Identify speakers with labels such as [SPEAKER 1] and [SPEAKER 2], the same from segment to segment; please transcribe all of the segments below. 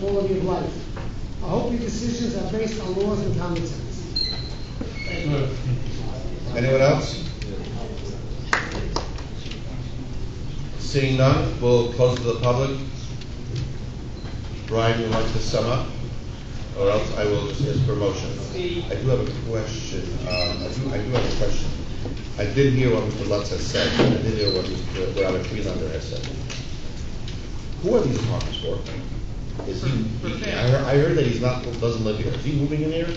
[SPEAKER 1] quality of life. I hope your decisions are based on laws and common sense.
[SPEAKER 2] Anyone else? Seeing none, we'll close to the public. Brian, you like to sum up? Or else I will just ask for motion. I do have a question, um, I do, I do have a question. I didn't hear what Mr. Lutz has said, I didn't hear what Mr. Robert Freelander has said. Who are these apartments for? Is he,
[SPEAKER 3] For- for
[SPEAKER 2] I
[SPEAKER 3] fam.
[SPEAKER 2] heard, I heard that he's not, doesn't live here, is he moving in here?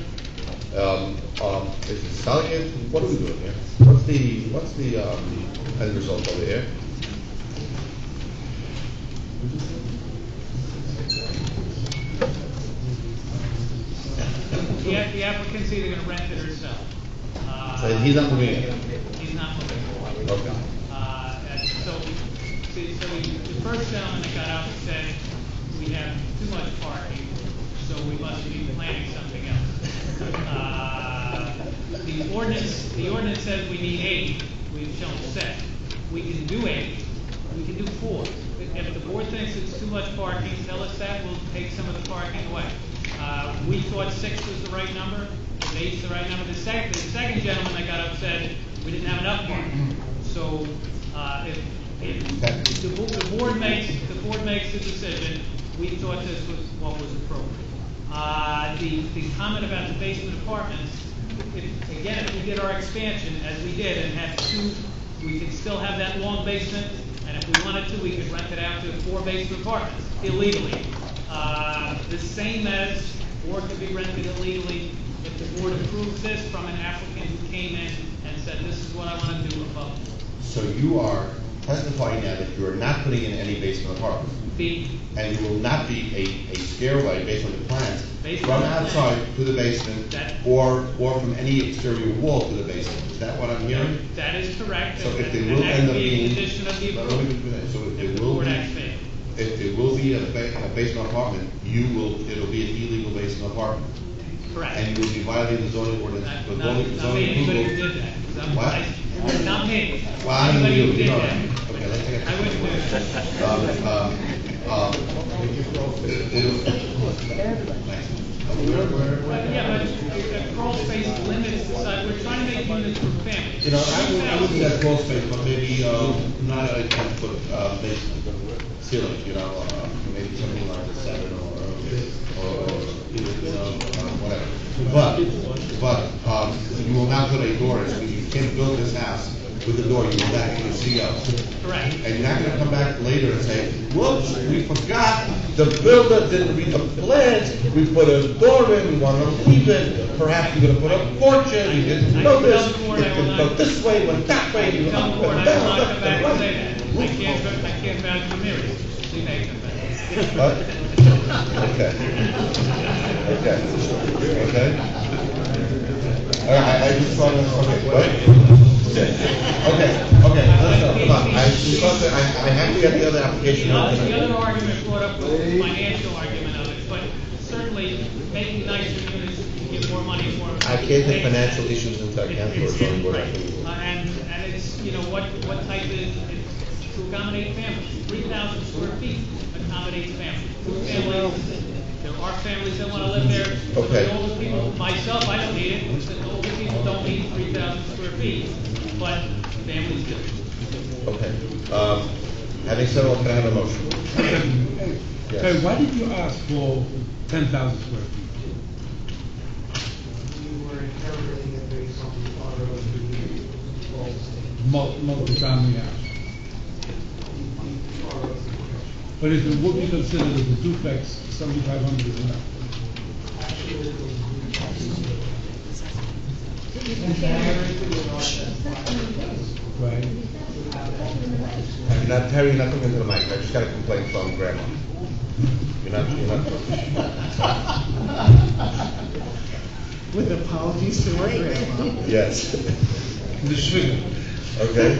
[SPEAKER 2] Um, um, is it selling it, what are we doing here? What's the, what's the, um, end result over here?
[SPEAKER 3] The app- the applicant's either gonna rent it or sell. Uh,
[SPEAKER 2] So he's not moving in?
[SPEAKER 3] He's not moving.
[SPEAKER 2] Okay.
[SPEAKER 3] Uh, and so, we- so so we- the first gentleman that got up and said, we have too much parking, so we must be planning something else. Uh, The ordinance, the ordinance says we need eight, we've shown six. We can do eight, we can do four. If the board thinks it's too much parking, tell us that, we'll take some of the parking away. Uh, we thought six was the right number, if eight's the right number. The second, the second gentleman that got up said, we didn't have enough parking. So, uh, if, if the bo- the board makes, the board makes the decision, we thought this was what was appropriate. Uh, the, the comment about the basement apartments, if, again, if we did our expansion as we did and had two, we could still have that long basement, and if we wanted to, we could rent it out to four basement apartments illegally. Uh, the same as, or could be rented illegally if the board approves this from an applicant who came in and said, this is what I wanna do above board.
[SPEAKER 2] So you are testifying now that you are not putting in any basement apartments,
[SPEAKER 3] The,
[SPEAKER 2] and you will not be a, a stairway based on the plans
[SPEAKER 3] Based on
[SPEAKER 2] from
[SPEAKER 3] the plan.
[SPEAKER 2] outside to the basement,
[SPEAKER 3] That-
[SPEAKER 2] or, or from any exterior wall to the basement, is that what I'm hearing?
[SPEAKER 3] that is correct,
[SPEAKER 2] So
[SPEAKER 3] and
[SPEAKER 2] if
[SPEAKER 3] that
[SPEAKER 2] they will
[SPEAKER 3] and that
[SPEAKER 2] end
[SPEAKER 3] would
[SPEAKER 2] up
[SPEAKER 3] be a
[SPEAKER 2] being.
[SPEAKER 3] condition of the
[SPEAKER 2] But let me do
[SPEAKER 3] approval,
[SPEAKER 2] that. So if
[SPEAKER 3] if
[SPEAKER 2] it
[SPEAKER 3] the
[SPEAKER 2] will
[SPEAKER 3] board
[SPEAKER 2] be,
[SPEAKER 3] acts favorably.
[SPEAKER 2] if it will be a ba- a basement apartment, you will, it'll be an illegal basement apartment,
[SPEAKER 3] correct.
[SPEAKER 2] and you will be violating the zoning ordinance,
[SPEAKER 3] Not,
[SPEAKER 2] the
[SPEAKER 3] not,
[SPEAKER 2] zoning,
[SPEAKER 3] not me,
[SPEAKER 2] zoning
[SPEAKER 3] anybody who
[SPEAKER 2] approval.
[SPEAKER 3] did that, 'cause I'm-
[SPEAKER 2] What?
[SPEAKER 3] I- not me,
[SPEAKER 2] Well, I don't
[SPEAKER 3] anybody
[SPEAKER 2] know,
[SPEAKER 3] who
[SPEAKER 2] you
[SPEAKER 3] did
[SPEAKER 2] know,
[SPEAKER 3] that.
[SPEAKER 2] okay, let's take a.
[SPEAKER 3] I wouldn't do it.
[SPEAKER 2] Um, um, um, it'll-
[SPEAKER 3] But yeah, but a- a crawl space limits the size, we're trying to make units for families.
[SPEAKER 2] You know, I would, I would do that crawl space, but maybe, um, not a ten foot, uh, basement ceiling, you know, uh, maybe something like a seven or, or, you know, uh, whatever. But, but, um, you will not put a door, in, so you can't build this house with a door, you will not get a CO.
[SPEAKER 3] Correct.
[SPEAKER 2] And you're not gonna come back later and say, whoops, we forgot, the builder didn't read the plans, we put a door in, we wanna leave it, perhaps you're gonna put a porch in, you didn't know this, it could go this way, went that way, you went
[SPEAKER 3] Tell
[SPEAKER 2] up
[SPEAKER 3] the board,
[SPEAKER 2] and
[SPEAKER 3] I will
[SPEAKER 2] down,
[SPEAKER 3] not come
[SPEAKER 2] left
[SPEAKER 3] back
[SPEAKER 2] and
[SPEAKER 3] and
[SPEAKER 2] right.
[SPEAKER 3] say that. I can't, go- I can't vouch for Mary, she may come back.
[SPEAKER 2] What? Okay. Okay. Okay. All right, I, I just wanna, okay, what? Okay, okay, okay, listen, come on, I, because I, I have to get the other application.
[SPEAKER 3] The other,
[SPEAKER 2] open.
[SPEAKER 3] the other argument brought up was the financial argument of it, but certainly making nicer units, you get more money for them.
[SPEAKER 2] I can't take
[SPEAKER 3] Makes sense.
[SPEAKER 2] financial issues into account for a zoning board approval.
[SPEAKER 3] Uh, And, and it's, you know, what, what type of, it's to accommodate families, three thousand square feet accommodates families. Two families, there are families that wanna live there, but
[SPEAKER 2] Okay.
[SPEAKER 3] the older people, myself, I don't need it, the older people don't need three thousand square feet, but families do.
[SPEAKER 2] Okay, um, having said all, can I have a motion? Yes.
[SPEAKER 4] Hey, why did you ask for ten thousand square feet?
[SPEAKER 1] You were interpreting it based on the order of the law,
[SPEAKER 4] Mul- multi-family house?
[SPEAKER 1] the order of the question.
[SPEAKER 4] But is it, would be considered as a duplex, seventy-five hundred is enough?
[SPEAKER 1] Actually, it was the And everything was on
[SPEAKER 4] Right?
[SPEAKER 2] You're not tearing nothing into the mic, I just got a complaint from grandma. You're not, you're not,
[SPEAKER 1] that. With apologies to her grandma.
[SPEAKER 2] yes,
[SPEAKER 4] The sugar.
[SPEAKER 2] okay?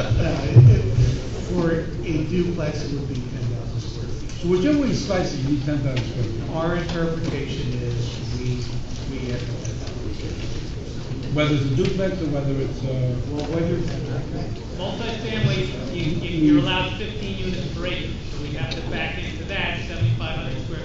[SPEAKER 1] uh, For a duplex, it would be ten thousand square feet.
[SPEAKER 4] So whichever way you slice it, you need ten thousand square feet.
[SPEAKER 1] Our interpretation is we, we have to have
[SPEAKER 4] Whether it's a duplex or whether it's, uh,
[SPEAKER 1] Well, whether it's
[SPEAKER 3] Multifamily, you, you- you're allowed fifteen units per acre, so we have to back into that, seventy-five hundred square